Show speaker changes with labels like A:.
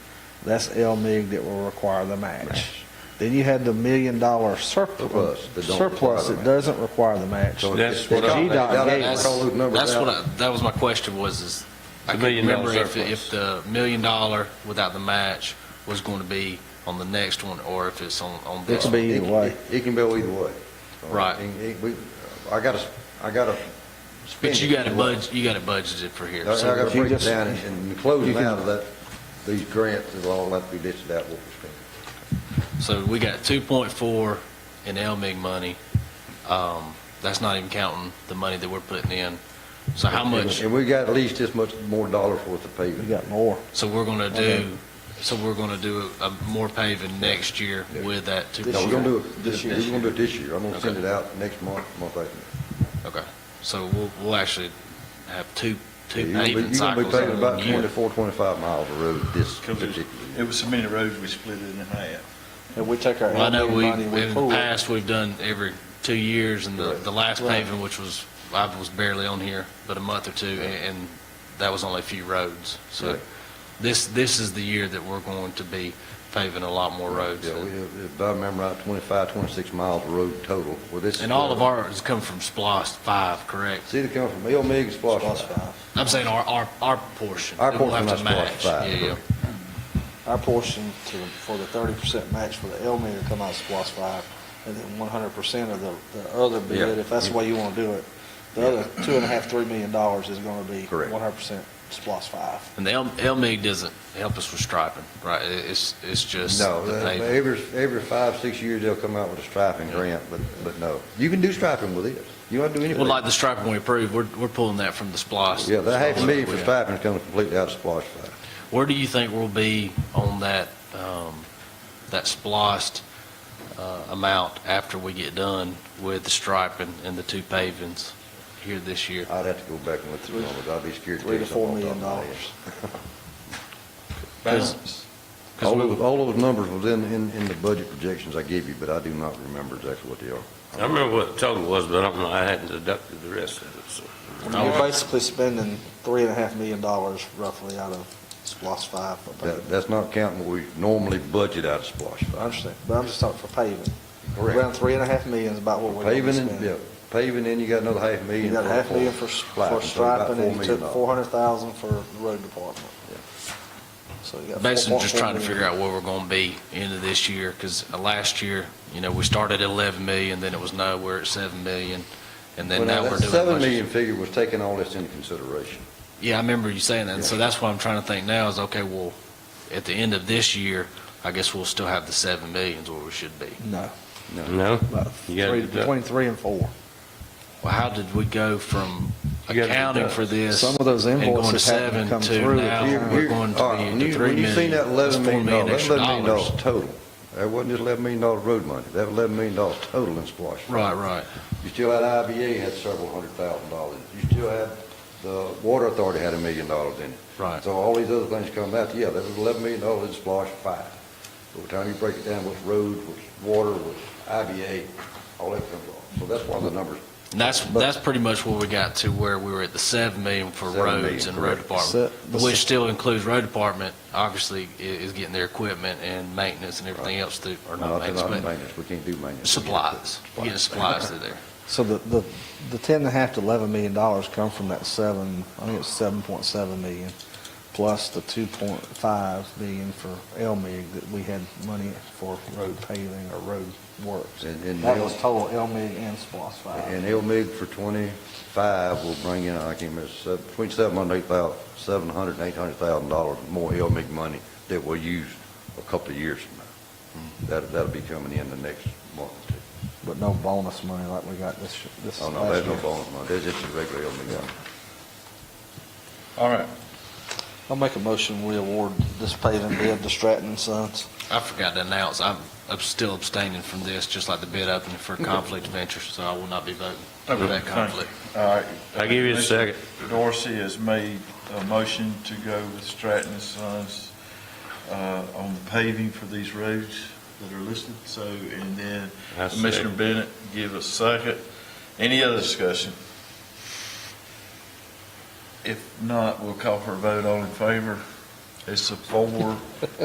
A: That's LMIG that will require the match. Then you had the million dollar surplus,
B: Surplus that don't
A: surplus
B: require the
A: that
B: match.
A: doesn't require the match.
B: So
C: That's
B: if
C: what
B: they
C: I-
B: don't- they don't
A: That's-
B: have to call those numbers
D: That's
B: out.
D: what I, that was my question was, is I
C: The
D: can
C: million dollar
D: remember if,
C: surplus.
D: if the million dollar without the match was going to be on the next one or if it's on, on
A: It
D: this
A: could
D: one.
A: be either
B: It-
A: way.
B: it- It can go either way.
D: Right.
B: And it- we- I gotta, I gotta spend
D: But you
B: it
D: got it
B: either way.
D: budget, you got it budgeted for
B: I I
D: here. So
B: gotta
A: if you
B: break it
A: just-
B: down and- and
A: you
B: closing
A: can-
B: out of that, these grants, it'll all have to be listed out what we're spending.
D: So we got two point four in LMIG money. Um, that's not even counting the money that we're putting in. So how
B: And-
D: much,
B: And we got at least this much more dollars worth of
A: We
B: paving.
A: got more.
D: so we're gonna
A: Okay.
D: do, so we're gonna do a more paving next year with that two point
B: No,
D: four?
B: we're gonna do it, this year. we're gonna do it this year. I'm gonna
D: Okay.
B: send it out next month, month after.
D: Okay, so we'll, we'll actually have two,
B: You're
D: two
B: gonna be-
D: paving
B: you're gonna be
D: cycles
B: paving
D: in
B: about
D: one year.
B: 24, 25 miles of road this
E: Because
B: particular
E: it's-
B: year.
E: it was so many roads, we split it in half.
A: And we take our
D: Well, I know
A: LMIG
D: we,
A: money,
D: in
A: we
D: the
A: pull it.
D: past, we've done every two years, and the,
B: Right.
D: the last
A: Right.
D: paving, which was, I was barely on here, but a month or two, a- and that was only a few roads. So
B: Right.
D: this, this is the year that we're going to be paving a lot more roads.
B: Yeah, we have, if I remember right, 25, 26 miles of road total. Well, this is
D: And all of
B: the-
D: ours come from SPOS five, correct?
B: It's either coming from El Mig and Splash.
D: I'm saying our, our, our portion.
B: Our
D: that we'll
B: portion
D: have
B: of
D: to
B: SPLOST
D: match.
B: five,
D: Yeah, yeah.
B: correct.
A: Our portion to, for the thirty percent match for the LMIG will come out of SPOS five, and then one hundred percent of the, the other bid,
B: Yeah.
A: if that's the way you wanna do it. The other two and a half, three million dollars is gonna be
B: Correct.
A: one hundred percent SPOS five.
D: And the L, LMIG doesn't help us with striping, right? It- It's, it's just
B: No,
D: the
B: uh,
D: paving.
B: every, every five, six years, they'll come out with a striping
D: Yeah.
B: grant, but, but no. You can do striping with it. You don't have to do anything.
D: Well, like the striping we approved, we're, we're pulling that from the SPOS.
B: Yeah, that half a million for
D: Yeah.
B: striping is coming completely out of Splash Five.
D: Where do you think we'll be on that, um, that splost, uh, amount after we get done with the striping and the two pavings here this year?
B: I'd have to go back and look through the numbers. I'd be scared to
A: Three
B: tell
A: to four
B: you something off
A: million
B: the top of my
A: dollars.
B: head.
D: Balance. 'Cause
B: All
D: we-
B: those, all those numbers was in, in, in the budget projections I gave you, but I do not remember exactly what they are.
C: I remember what the total was, but I don't know, I hadn't deducted the rest of it, so.
A: You're basically spending three and a half million dollars roughly out of SPOS five for
B: That,
A: paving.
B: that's not counting what we normally budget out of Splash
A: I
B: Five.
A: understand, but I'm just talking for paving.
B: Correct.
A: Around three and a half million is about what we're gonna be
B: Paving and, yeah,
A: spending.
B: paving, and you got another half million.
A: You got a half
B: for-
A: million for, s-
B: striping,
A: for
B: so about
A: striping,
B: four
A: and you
B: million
A: took
B: dollars.
A: four hundred thousand for the road department. So you got.
D: Basically,
A: 4.4
D: just trying to
A: million.
D: figure out where we're gonna be end of this year, because last year, you know, we started at eleven million, then it was no, we're at seven million, and then
B: Well,
D: now
B: now,
D: we're
B: that
D: doing.
B: seven
D: budget-
B: million figure was taking all this into consideration.
D: Yeah, I remember you saying that, and so that's what I'm trying to think now is, okay, well, at the end of this year, I guess we'll still have the seven millions where we should be.
A: No,
C: No?
A: about
C: You gotta
A: three,
C: deduct.
A: between three and four.
D: Well, how did we go from
C: You gotta
D: accounting
C: deduct.
D: for this?
A: Some of those
D: and going to
A: invoices haven't
D: seven
A: come
D: to
A: through.
D: Now
A: You-
D: we're
B: you-
D: going
B: all right,
D: to
B: uh, when
D: be
B: you-
D: to three
B: When you seen
D: million.
B: that eleven
D: That's four
B: million
D: million
B: dollars,
D: extra
B: that eleven million dollars
D: dollars.
B: total. That wasn't just eleven million dollar road money. That was eleven million dollars total in Splash Five.
D: Right, right.
B: You still had IBA had several hundred thousand dollars. You still had, the Water Authority had a million dollars in it.
D: Right.
B: So all these other things come out, yeah, that was eleven million dollars in Splash Five. By the time you break it down, what's road, what's water, what's IBA, all that comes off. So that's why the numbers,
D: And that's, that's pretty much where we got to where we were at the seven million for
B: Seven million,
D: roads and road
B: correct.
D: department.
A: Se- the se-
D: Which still includes road department, obviously, i- is getting their equipment and maintenance and everything else through, or
B: not
D: not
B: that
D: maintenance,
B: I'm
D: but
B: maintenance, we can't do maintenance.
D: supplies. You're getting supplies through there.
A: So the, the, the ten and a half to eleven million dollars come from that seven, I think it's seven point seven million, plus the two point five million for LMIG that we had money for road paving or road works.
B: And- and
A: That
B: they'll-
A: was total LMIG and SPOS five.
B: And El Mig for twenty-five will bring in, I can't remember, se- between seven hundred, eight thousand, seven hundred and eight hundred thousand dollars more El Mig money that we'll use a couple of years from
D: Hmm.
B: now. That, that'll be coming in the next month or two.
A: But no bonus money like we got this, this
B: Oh,
A: last
B: no, there's no
A: year.
B: bonus money, that's just the regular El Mig money.
E: All right,
A: I'll make a motion, we award this paving bid to Stratton and Sons.
D: I forgot to announce, I'm, I'm still abstaining from this, just like the bid opening for conflict of interest, so I will not be voting for
E: Okay,
D: that
E: thank you.
D: conflict.
E: all right.
C: I give you a second.
E: Dorsey has made a motion to go with Stratton and Sons uh, on the paving for these roads that are listed, so, and then
C: I
E: Commissioner
C: second.
E: Bennett give a second. Any other discussion? If not, we'll call for a vote, all in favor. It's a four,